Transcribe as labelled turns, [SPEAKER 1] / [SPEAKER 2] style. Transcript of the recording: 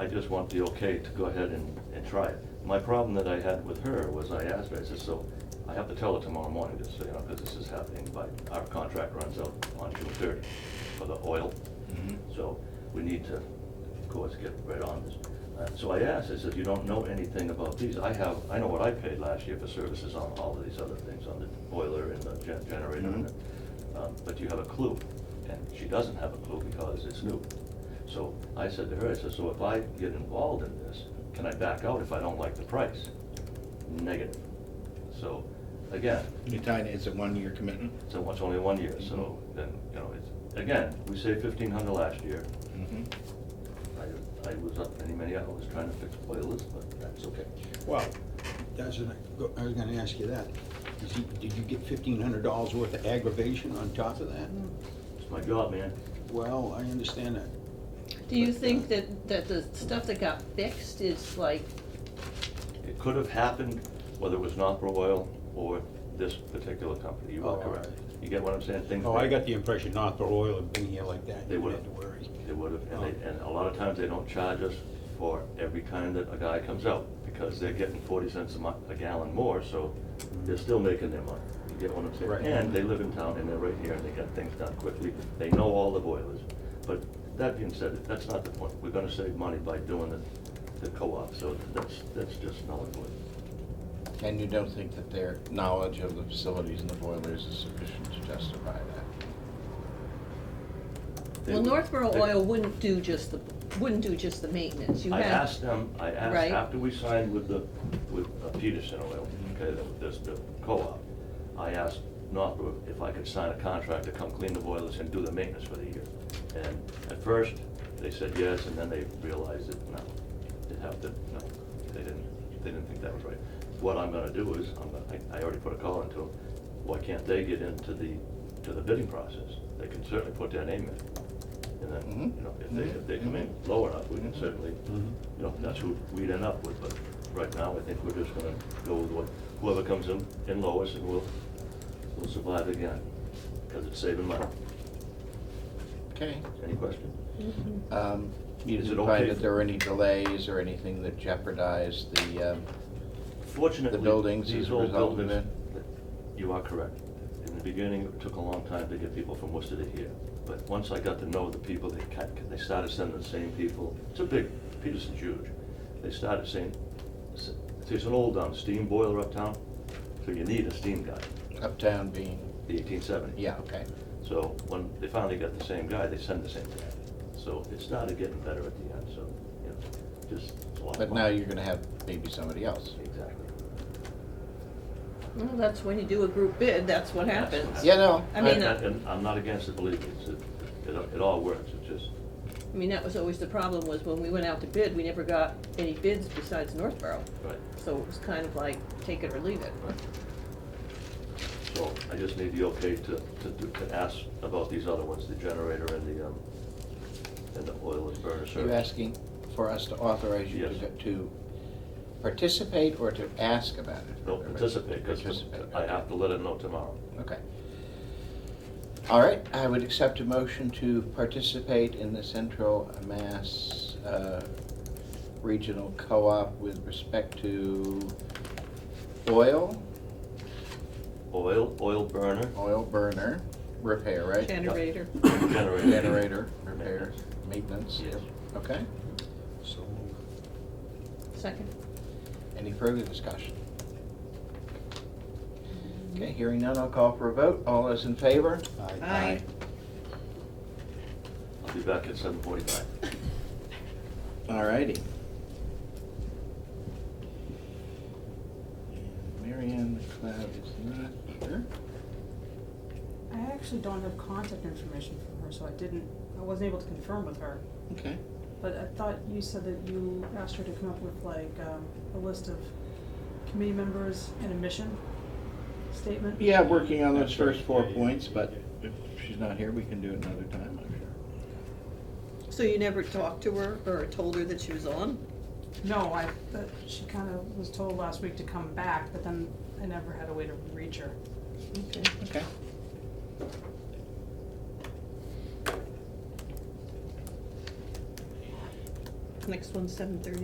[SPEAKER 1] I just want the okay to go ahead and, and try it. My problem that I had with her was I asked her, I said, so I have to tell her tomorrow morning, just so you know, because this is happening by, our contract runs out on June thirty for the oil. So we need to, of course, get right on this. Uh, So I asked, I said, you don't know anything about these? I have, I know what I paid last year for services on all of these other things, on the boiler and the gen- generator and
[SPEAKER 2] Mhm.
[SPEAKER 1] the, um, but do you have a clue? And she doesn't have a clue because it's new. So I said to her, I said, so if I get involved in this, can I back out if I don't like the price? Negative. So, again,
[SPEAKER 2] You're tied, it's a one-year commitment.
[SPEAKER 1] so it's only one year, so then, you know, it's, again, we saved fifteen hundred last year.
[SPEAKER 2] Mm-hmm.
[SPEAKER 1] I, I was up many, many hours trying to fix boilers, but that's okay.
[SPEAKER 2] Well,
[SPEAKER 3] That's what I, go- I was gonna ask you that. Is he- Did you get fifteen hundred dollars worth of aggravation on top of that?
[SPEAKER 1] It's my job, man.
[SPEAKER 3] Well, I understand that.
[SPEAKER 4] Do you think that, that the stuff that got fixed is like,
[SPEAKER 1] It could have happened whether it was Nopro Oil or this particular company. You are
[SPEAKER 3] Oh,
[SPEAKER 1] correct.
[SPEAKER 3] all right.
[SPEAKER 1] You get what I'm saying? Things.
[SPEAKER 3] Oh, I got the impression not for oil and being here like that,
[SPEAKER 1] They
[SPEAKER 3] you
[SPEAKER 1] would
[SPEAKER 3] had
[SPEAKER 1] have.
[SPEAKER 3] to worry.
[SPEAKER 1] They would have, and they, and a lot of times they don't charge us for every time that a guy comes out because they're getting forty cents a mi, a gallon more, so they're still making their money. You get what I'm saying?
[SPEAKER 3] Right.
[SPEAKER 1] And they live in town and they're right here and they got things done quickly. They know all the boilers. But that being said, that's not the point. We're gonna save money by doing the, the co-op, so that's, that's just null and void.
[SPEAKER 2] and you don't think that their knowledge of the facilities and the boilers is sufficient to justify that?
[SPEAKER 1] They-
[SPEAKER 4] well, Northborough
[SPEAKER 1] they-
[SPEAKER 4] Oil wouldn't do just the, wouldn't do just the maintenance, you
[SPEAKER 1] I
[SPEAKER 4] had.
[SPEAKER 1] asked them, I asked,
[SPEAKER 4] Right.
[SPEAKER 1] after we signed with the, with uh, Peterson Oil, okay, that was this, the co-op, I asked Northbrook if I could sign a contract to come clean the boilers and do the maintenance for the year. And at first, they said yes, and then they realized that, no, they have to, no, they didn't, they didn't think that was right. What I'm gonna do is, I'm gonna, I, I already put a call into them, why can't they get into the, to the bidding process? They can certainly put their name in, and then,
[SPEAKER 2] Mhm.
[SPEAKER 1] you know, if they, if they come in low enough, we can certainly you know, that's who we'd end up with, but right now, I think we're just gonna go with what, whoever comes in, in lowest, and we'll, we'll survive again, because it's saving money.
[SPEAKER 2] Okay.
[SPEAKER 1] Any question?
[SPEAKER 4] Mhm.
[SPEAKER 2] Um, You
[SPEAKER 1] Is it
[SPEAKER 2] didn't find
[SPEAKER 1] okay
[SPEAKER 2] that
[SPEAKER 1] for-
[SPEAKER 2] there were any delays or anything that jeopardized the, um,
[SPEAKER 1] Fortunately,
[SPEAKER 2] The buildings
[SPEAKER 1] these
[SPEAKER 2] as a
[SPEAKER 1] old
[SPEAKER 2] result of
[SPEAKER 1] buildings- You are correct. In the beginning, it took a long time to get people from Worcester to here, but once I got to know the people, they kept, they started sending the same people. It's a big, Peterson's huge. They started saying, s- there's an old um, steam boiler uptown, so you need a steam guy,
[SPEAKER 2] uptown being,
[SPEAKER 1] the eighteen seventy.
[SPEAKER 2] yeah, okay.
[SPEAKER 1] So when they finally got the same guy, they sent the same guy. So it started getting better at the end, so, you know, just a lot of.
[SPEAKER 2] But
[SPEAKER 1] fun.
[SPEAKER 2] now you're gonna have maybe somebody else.
[SPEAKER 1] Exactly.
[SPEAKER 4] Well, that's when you do a group bid, that's what happens.
[SPEAKER 2] Yeah, no.
[SPEAKER 4] I mean,
[SPEAKER 1] And-
[SPEAKER 4] uh,
[SPEAKER 1] And I'm not against it, believe me, it's, it- it, it all works, it's just,
[SPEAKER 4] I mean, that was always the problem, was when we went out to bid, we never got any bids besides Northborough.
[SPEAKER 1] right,
[SPEAKER 4] So it was kind of like, take it or leave it.
[SPEAKER 1] right. So I just need the okay to, to, do- to ask about these other ones, the generator and the, um, and the oil and burner service.
[SPEAKER 2] You're asking for us to authorize you to,
[SPEAKER 1] Yes.
[SPEAKER 2] go- to participate or to ask about it?
[SPEAKER 1] No, participate, because
[SPEAKER 2] Participate,
[SPEAKER 1] I
[SPEAKER 2] okay.
[SPEAKER 1] have to let it know tomorrow.
[SPEAKER 2] Okay. All right, I would accept a motion to participate in the Central Mass uh, Regional Co-op with respect to oil,
[SPEAKER 1] Oil, oil burner,
[SPEAKER 2] oil burner repair, right?
[SPEAKER 4] Generator.
[SPEAKER 1] generator.
[SPEAKER 2] Generator repair, maintenance.
[SPEAKER 1] Yes.
[SPEAKER 2] Okay,
[SPEAKER 3] So,
[SPEAKER 4] Second.
[SPEAKER 2] any further discussion? Okay, hearing none, I'll call for a vote. All those in favor?
[SPEAKER 3] I,
[SPEAKER 4] Aye.
[SPEAKER 1] I'll be back at seven forty-five.
[SPEAKER 2] All righty. And Marianne McLeod is not here.
[SPEAKER 5] I actually don't have contact information from her, so I didn't, I wasn't able to confirm with her.
[SPEAKER 2] Okay.
[SPEAKER 5] But I thought you said that you asked her to come up with like, um, a list of committee members and a mission statement?
[SPEAKER 2] Yeah, working on those
[SPEAKER 3] That's right.
[SPEAKER 2] first four
[SPEAKER 3] Yeah, yeah,
[SPEAKER 2] points,
[SPEAKER 3] yeah,
[SPEAKER 2] but
[SPEAKER 3] yeah.
[SPEAKER 2] if she's not here, we can do it another time, I'm sure.
[SPEAKER 4] So you never talked to her or told her that she was on?
[SPEAKER 5] No, I, but she kinda was told last week to come back, but then I never had a way to reach her.
[SPEAKER 4] Okay.
[SPEAKER 2] Okay.
[SPEAKER 4] next one's seven thirty.